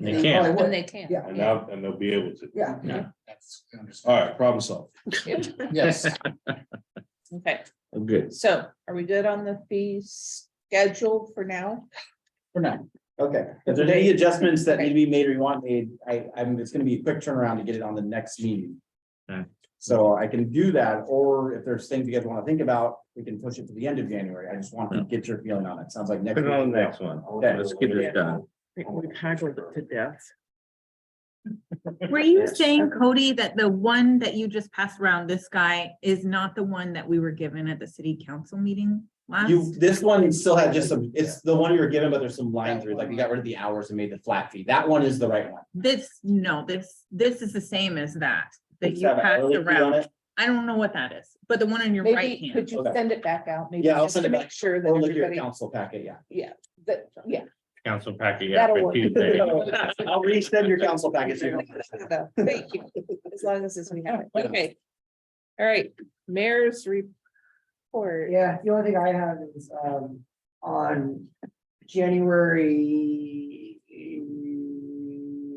They They can't. probably Then would. they can't. Yeah. And now, and they'll be able to. Yeah. Yeah. That's understood. All right, problem solved. Yes. Okay, Oh, I'm good. so are we good on the fee schedule for now? For now, Okay, if there's any adjustments that need to be made or you want made, I, I'm, it's gonna be a quick turnaround to get it on the next meeting. Okay. So I can do that, or if there's things you guys wanna think about, we can push it to the end of January. I just want to get your feeling on it. Sounds like next. Put it on week. the next one. Yeah. Let's get this done. We've haggled it to death. Were you saying, Cody, that the one that you just passed around, this guy, is not the one that we were given at the city council meeting You, last? this one still had just some, it's the one you were given, but there's some line through, like we got rid of the hours and made the flat fee. That one is the right one. This, no, this, this is the same as that, that It's you got an passed early fee on around. it. I don't know what that is, but the one on your right Maybe could hand. you Okay. send it back out? maybe Yeah, I'll just send to it make back. Sure that Or look at your everybody, council packet, yeah. yeah, that, yeah. Council packet, yeah, That'll for work. Tuesday. I'll resend your council packet. so you don't- No, Thank you, as long as it's, we have it. okay. All right, mayor's report. yeah, the only thing I have is, um, on January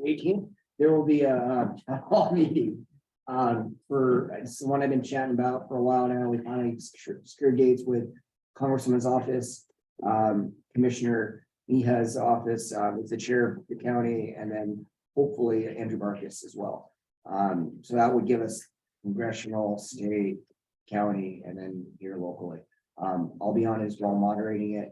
eighteen, there will be a, um, a hall meeting. Um, for, it's the one I've been chatting about for a while now, we finally secured secured dates with Congressman's office, um, Commissioner Miha's office, uh, with the chair of the county, and then hopefully Andrew Marcus as well. Um, so that would give us congressional, state, county, and then here locally. Um, I'll be honest, while moderating it,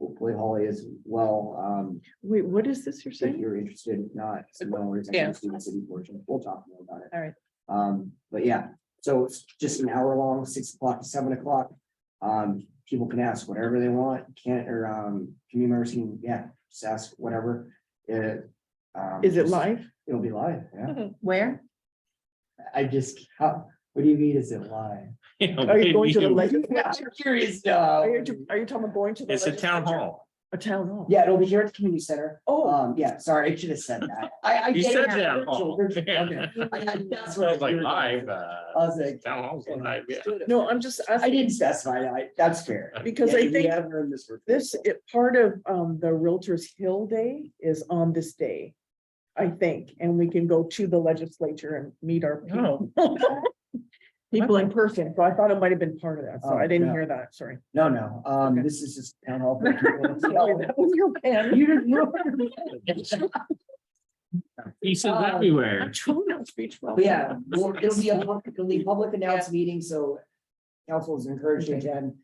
hopefully Holly as well, um, Wait, what is this you're if saying? you're interested, if not, it's no worries. I Yeah. can see the city portion. We'll talk more about it. All right. Um, but yeah, so it's just an hour long, six o'clock to seven o'clock. Um, people can ask whatever they want, can't, or, um, community members can, yeah, just ask whatever. It, um, Is it just- live? It'll be live, yeah. Where? I just, how, what do you mean, is it live? Yeah, Are you going to the we- legislature? You're curious, Are no. you, are you talking about going to? the It's a town legislature? hall. A town hall. Yeah, it'll be here at the community center. Oh, Um, yeah, sorry, I should have said that. I, I. You get it. said Virtual, that. hall. virtual, okay. I- I- That's what I Like was- live, I uh, was like. town hall's live, yeah. no, I'm just I asking didn't specify, that. I, that's fair. because Yeah, I we think have room this for- this, it, part of, um, the Realtors Hill Day is on this day. I think, and we can go to the legislature and meet our Oh. people. People in person, so I thought it might have been part of that, so Oh, I didn't no. hear that, sorry. No, no, um, Okay. this is just town hall. for Sorry, people. that was your plan. You didn't know. Pieces Um, everywhere. I'm trying not to be But twelve. Yeah, well, it'll be a public, it'll be a public announced meeting, so council is encouraged to attend.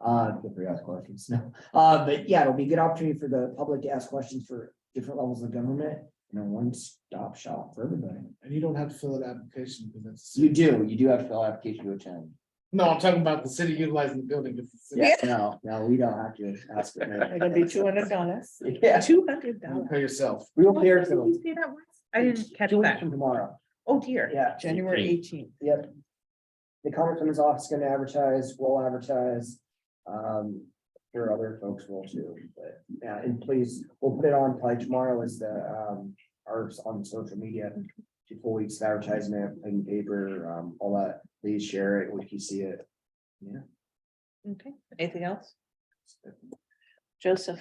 Uh, feel free to ask questions, no, uh, but yeah, it'll be a good opportunity for the public to ask questions for different levels of government. And a one-stop shop for everybody. And you don't have to fill an application because that's. You do, you do have to fill out application to attend. No, I'm talking about the city utilizing the building. It's the city. Yeah. No, no, we don't have to ask. for They're gonna be that. two hundred dollars. Yeah, Two hundred You dollars. pay yourself. real What day fair. did you say that was? I didn't catch that. Tomorrow, Oh, dear. yeah, January Eight. eighteenth. yep. The congressman's office is gonna advertise, we will advertise. Um, there are other folks will too, but yeah, and please, we'll put it on probably tomorrow is the um, our on social media. Two full weeks of advertisement, in paper, um, all that, please share it if you see it. Okay, anything else? Joseph,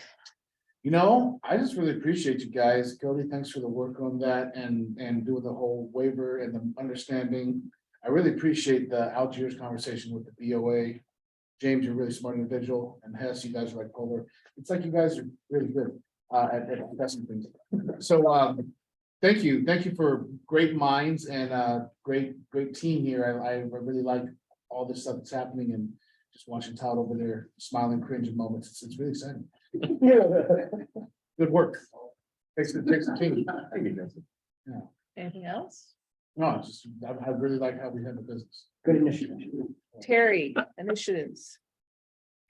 You know, I just really appreciate you guys. Cody, thanks for the work on that and, and doing the whole waiver and the understanding. I really appreciate the Algiers conversation with the BOA. James, you're a really smart individual and Hess, you guys are like polar. It's like you guys are really good, uh, at, at assessing things. So, um, thank you. Thank you for great minds and, uh, great, great team here. I, I really like all this stuff that's happening and just watching Todd over there smiling, cringing moments. It's, it's really exciting. Good work. Takes, the- takes the team. anything else? No, it's just, I, I really like how we have the business. Good initiative. Terry, initiatives.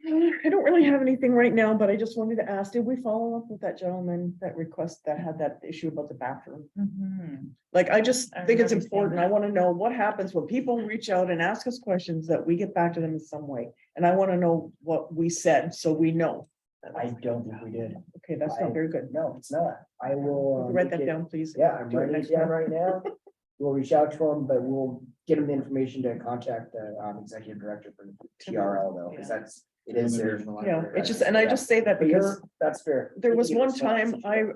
I don't really have anything right now, but I just wanted to ask, did we follow up with that gentleman that request that had that issue about the bathroom? Mhm. Like, I just I think it's remember seeing important. I want to know what happens when people reach out and ask us questions that we get back to them in some way. And I want to know what we said, so we know. I don't think we did. Okay, that's not very good. No, it's not. I will. um, Write that get- down, please. Yeah, I'm Do it writing next it down time. right now. We'll reach out to him, but we'll get him the information to contact the um, executive director for TRL though, because Yeah. that's It is there. you know, it's just, and I just say that because That's fair. there was You know, one so- time I,